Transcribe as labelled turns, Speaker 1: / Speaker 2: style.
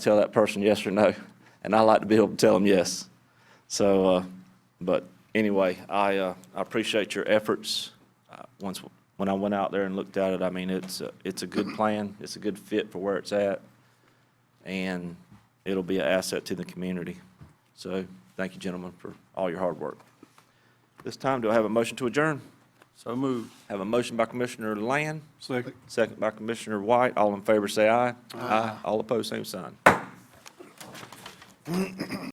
Speaker 1: tell that person yes or no, and I like to be able to tell them yes. So, uh, but anyway, I, uh, I appreciate your efforts. Uh, once when I went out there and looked at it, I mean it's a, it's a good plan. It's a good fit for where it's at, and it'll be an asset to the community. So, thank you, gentlemen, for all your hard work. This time, do I have a motion to adjourn?
Speaker 2: So moved.
Speaker 1: Have a motion by Commissioner Land,
Speaker 2: Second.
Speaker 1: second by Commissioner White. All in favor, say aye. Aye. All opposed, same sign.